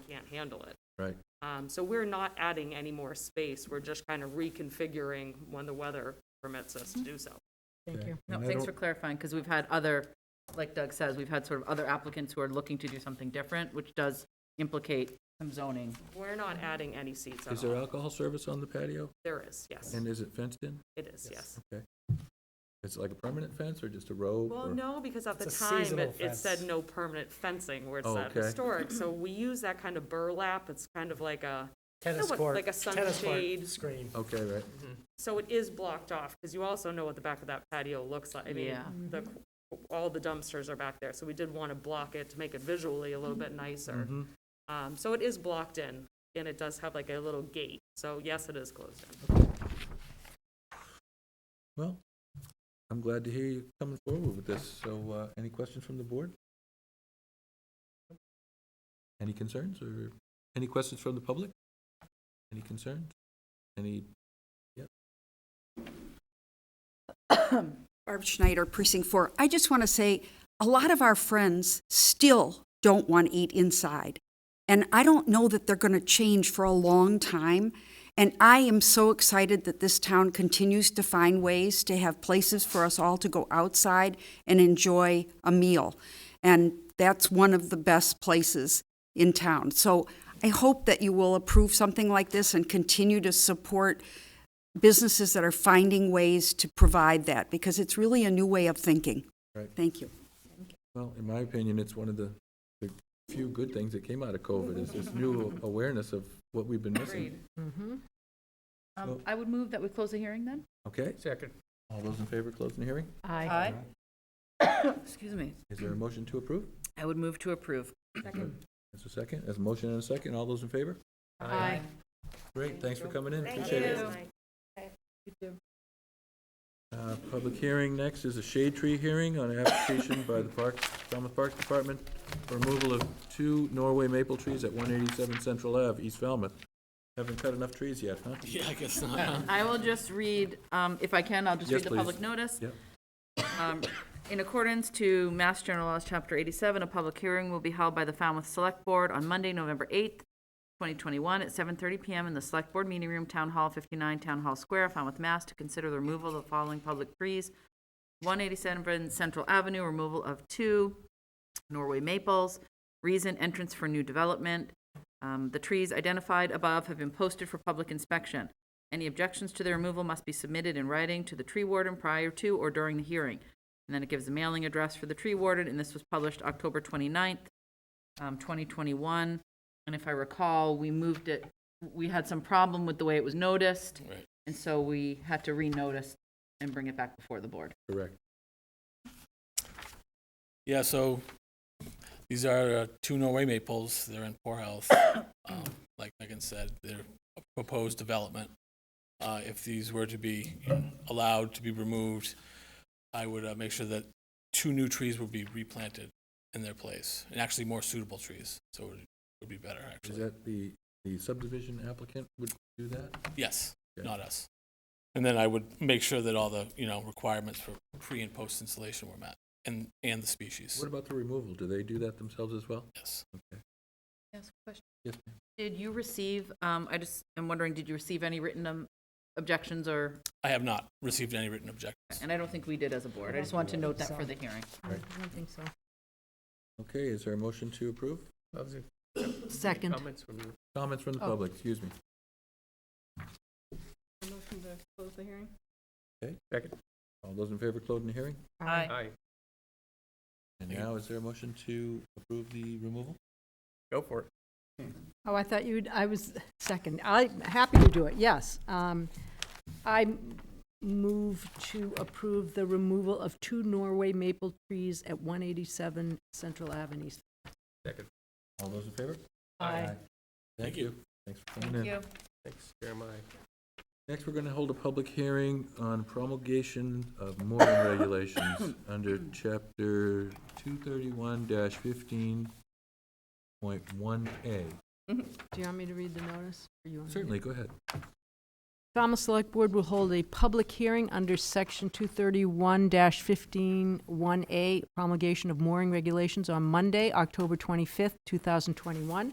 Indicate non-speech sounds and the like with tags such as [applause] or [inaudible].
can't handle it. Right. Um, So we're not adding any more space, we're just kind of reconfiguring when the weather permits us to do so. Thank Okay. you. And No, I thanks don't- for clarifying, because we've had other, like Doug says, we've had sort of other applicants who are looking to do something different, which does implicate some zoning. We're not adding any seats Is at there all. alcohol service on the patio? There is, yes, And is it fenced in? it is, yes. It's like a permanent fence or just a rope? Well, or- no, because at the It's a time, seasonal it, it said fence. no permanent fencing where it Oh, said okay. historic, so we use that kind of burlap, it's kind of like a, Tennis what- court. like a tennis court sunshade. Screen. Okay, right. Mm-hmm. so it is blocked off, because you also know what the back of that patio looks like. I mean, Yeah. the, all the dumpsters are back there, so we did want to block it to make it visually a little bit nicer. Um, so it is blocked in, and it does have like a little gate, so yes, it is closed in. Well, I'm glad to hear you coming forward with this. So, uh, any questions from the board? Any concerns or, any questions from the public? Any concerns? Any, Barb Schneider, Precinct 4. I just want to say, a lot of our friends still don't want to eat inside. And I don't know that they're going to change for a long time. And I am so excited that this town continues to find ways to have places for us all to go outside and enjoy a meal. And that's one of the best places in town. So I hope that you will approve something like this and continue to support businesses that are finding ways to provide that, because it's really a new way of thinking. Right. Thank you. well, in my opinion, it's one of the, the few good things that came out of COVID is this [laughs] new awareness of what we've been missing. Um, I would move that we close the hearing then? Okay? Second. All those in favor closing the hearing? Aye. [coughs] Excuse me. Is there a motion to approve? I would move to approve. As a second, as a motion and a second, all those in favor? Aye. Great, thanks for coming in, appreciate it. You too. Uh, Public hearing next is a shade tree hearing on an application by the Park, Falmouth Parks Department for removal of two Norway maple trees at one eighty-seven Central Ave, East Falmouth. Haven't cut enough trees yet, huh? I will just read, um, if I can, I'll just Yes, read the please. public notice. Yep. Um, In accordance to Mass General Laws, Chapter 87, a public hearing will be held by the Falmouth Select Board on Monday, November 8th, 2021, at 7:30 PM in the Select Board Meeting Room, Town Hall 59, Town Hall Square, Falmouth, Mass, to consider the removal of the following public trees: 187 Central Avenue, removal of two Norway maples, reason entrance for new development. Um, The trees identified above have been posted for public inspection. Any objections to the removal must be submitted in writing to the tree warden prior to or during the hearing. And then it gives a mailing address for the tree warden, and this was published October 29th, um, 2021. And if I recall, we moved it, we had some problem with the way it was noticed. And so we had to renotice and bring it back before the board. Correct. Yeah, so these are uh, two Norway maples. They're in poor [coughs] health. Um, Like Megan said, they're a proposed development. Uh, If these were to be allowed to be removed, I would uh, make sure that two new trees would be replanted in their place, and actually more suitable trees, so it would- would be better, Is actually. that the, the subdivision applicant would do that? Yes, Yeah. not us. And then I would make sure that all the, you know, requirements for pre and post installation were met, and, and the species, What about the removal? Do they do that themselves as well? yes. Yes, question. Yes, ma'am. Did you receive, um, I just, I'm wondering, did you receive any written um, objections or I have not received any written objections. And I don't think we did as a board. I just want to note that for the hearing. Okay, is there a motion to approve? Second. Comments from the public, excuse me. Motion to close the hearing? Okay. Second. All those in favor closing the hearing? Aye. And Thank you. now, is there a motion to approve the removal? Go for it. Oh, I thought you'd, I was second. I'm happy to do it, yes. Um, I move to approve the removal of two Norway maple trees at 187 Central Avenue. All those in favor? Aye. Thank Thank you. Thanks for coming in. Thanks, Jeremiah. Next, we're going to hold a public hearing on promulgation of mooring regulations under chapter 231-15.1A. Do you want me to read the notice? or you want me to? Certainly, go ahead. Falmouth Select Board will hold a public hearing under Section 231-15-1A promulgation of mooring regulations on Monday, October 25th, 2021,